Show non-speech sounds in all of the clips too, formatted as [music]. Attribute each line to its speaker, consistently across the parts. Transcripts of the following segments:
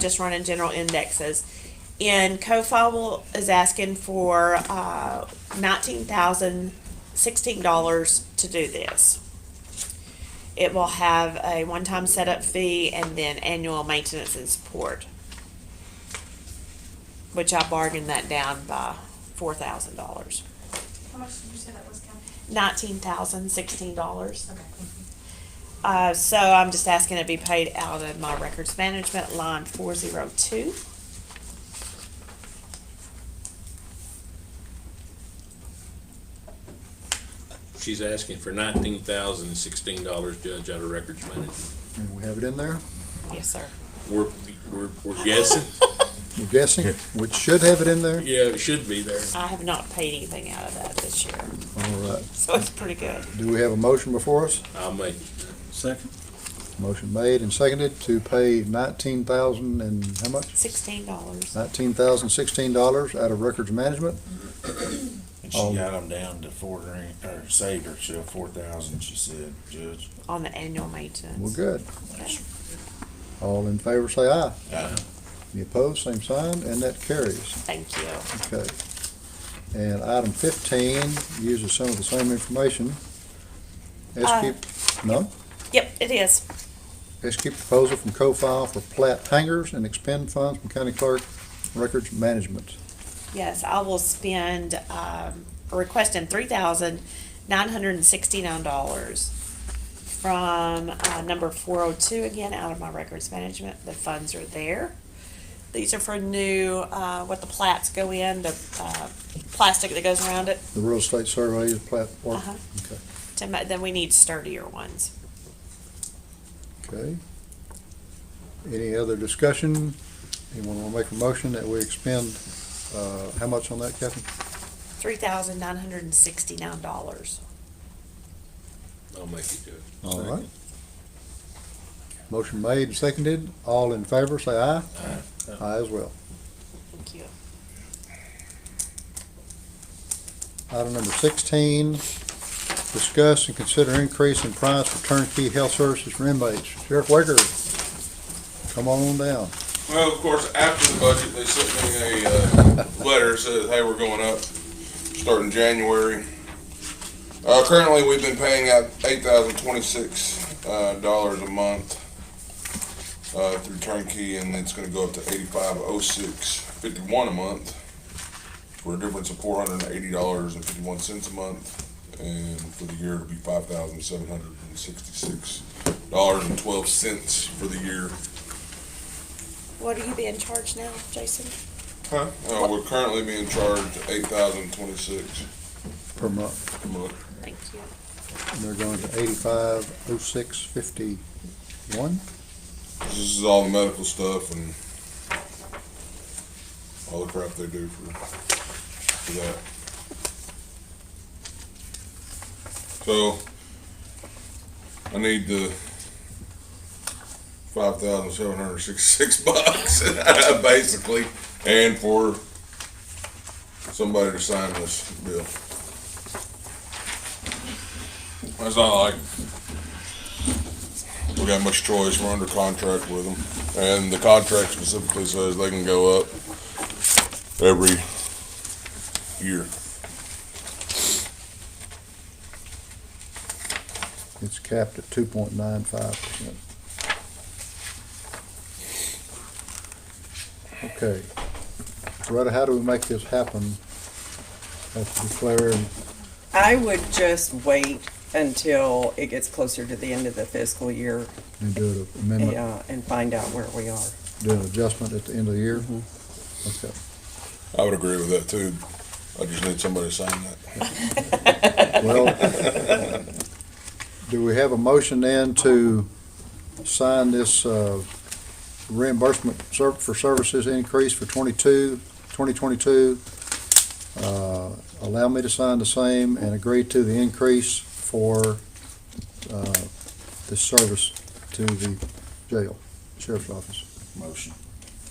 Speaker 1: just running general indexes. And CoFable is asking for uh, nineteen thousand sixteen dollars to do this. It will have a one-time setup fee and then annual maintenance and support, which I bargained that down by four thousand dollars.
Speaker 2: How much did you say that was, Ken?
Speaker 1: Nineteen thousand sixteen dollars.
Speaker 2: Okay, thank you.
Speaker 1: Uh, so I'm just asking it be paid out of my records management line four zero two.
Speaker 3: She's asking for nineteen thousand and sixteen dollars, Judge, out of records management.
Speaker 4: And we have it in there,
Speaker 1: Yes, sir.
Speaker 3: We're, we're, we're
Speaker 4: [laughs]
Speaker 3: guessing,
Speaker 4: we're guessing, we should have it in there,
Speaker 3: yeah, it should be there.
Speaker 1: I have not paid anything out of that this year,
Speaker 4: all right.
Speaker 1: so it's pretty good.
Speaker 4: Do we have a motion before us?
Speaker 3: I'll make,
Speaker 5: Second.
Speaker 4: Motion made and seconded to pay nineteen thousand and how much?
Speaker 1: Sixteen dollars.
Speaker 4: Nineteen thousand sixteen dollars out of records management.
Speaker 5: And
Speaker 4: Oh.
Speaker 5: she got them down to four grand, or saved her, she four thousand, she said, Judge.
Speaker 1: on the annual
Speaker 4: We're
Speaker 1: maintenance.
Speaker 4: good. All in favor, say aye.
Speaker 5: Aye.
Speaker 4: Any opposed, same sign, and that carries.
Speaker 1: Thank you.
Speaker 4: Okay. And item fifteen uses some of the same information.
Speaker 1: Uh.
Speaker 4: SQ, no?
Speaker 1: Yep, it is.
Speaker 4: Execute proposal from co-file for plat hangers and expend funds from county clerk records management.
Speaker 1: Yes, I will spend, um, requesting three thousand nine hundred and sixty-nine dollars from, uh, number four oh two, again, out of my records management. The funds are there. These are for new, uh, what the plats go in, the, uh, plastic that goes around it.
Speaker 4: The real estate survey is plat work.
Speaker 1: Uh-huh.
Speaker 4: Okay,
Speaker 1: To ma- Then we need sturdier ones.
Speaker 4: okay. Any other discussion? Anyone want to make a motion that we expend, uh, how much on that, Kathy?
Speaker 1: Three thousand nine hundred and sixty-nine dollars.
Speaker 3: I'll make it, Judge.
Speaker 4: All right. Motion made and seconded. All in favor, say aye. Aye. Aye as well.
Speaker 1: Thank you.
Speaker 4: Item number sixteen, discuss and consider increase in price for turnkey health services for inmates. Sheriff Waker, come on down.
Speaker 6: Well, of course, after the budget, they sent me a, uh, letter that says, hey, we're going up, starting January. Uh, currently, we've been paying out eight thousand twenty-six, uh, dollars a month, uh, through turnkey, and it's gonna go up to eighty-five oh six fifty-one a month for a difference of four hundred and eighty dollars and fifty-one cents a month, and for the year, it'll be five thousand seven hundred and sixty-six dollars and twelve cents for the year.
Speaker 1: What are you being charged now, Jason?
Speaker 6: Huh? Uh, we're currently being charged eight thousand twenty-six
Speaker 4: per month.
Speaker 6: a month.
Speaker 1: Thank you.
Speaker 4: And they're going to eighty-five oh six fifty-one.
Speaker 6: This is all the medical stuff and all the crap they do for, for that. So, I need the five thousand seven hundred sixty-six [laughs] bucks, basically, and for somebody to sign this bill. That's not like we got much choice. We're under contract with them, and the contract specifically says they can go up every year.
Speaker 4: It's capped at two point nine five percent. Okay. Loretta, how do we make this happen? Have to declare,
Speaker 7: I would just wait until it gets closer to the end of the fiscal year
Speaker 4: and do an
Speaker 7: and,
Speaker 4: amendment,
Speaker 7: uh, and find out where we are.
Speaker 4: do an adjustment at the end of the year? Okay.
Speaker 6: I would agree with that too. I just need somebody to sign that.
Speaker 4: Well, do we have a motion then to sign this uh, reimbursement ser- for services increase for 22, 2022? Uh, Allow me to sign the same and agree to the increase for uh, the service to the jail, sheriff's office.
Speaker 5: Motion.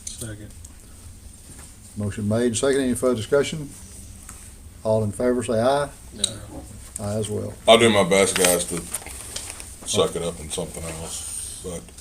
Speaker 8: Second.
Speaker 4: Motion made and seconded. Any further discussion? All in favor, say aye.
Speaker 3: No.
Speaker 4: Aye as well.
Speaker 6: I'll do my best, guys, to suck it up in something else, but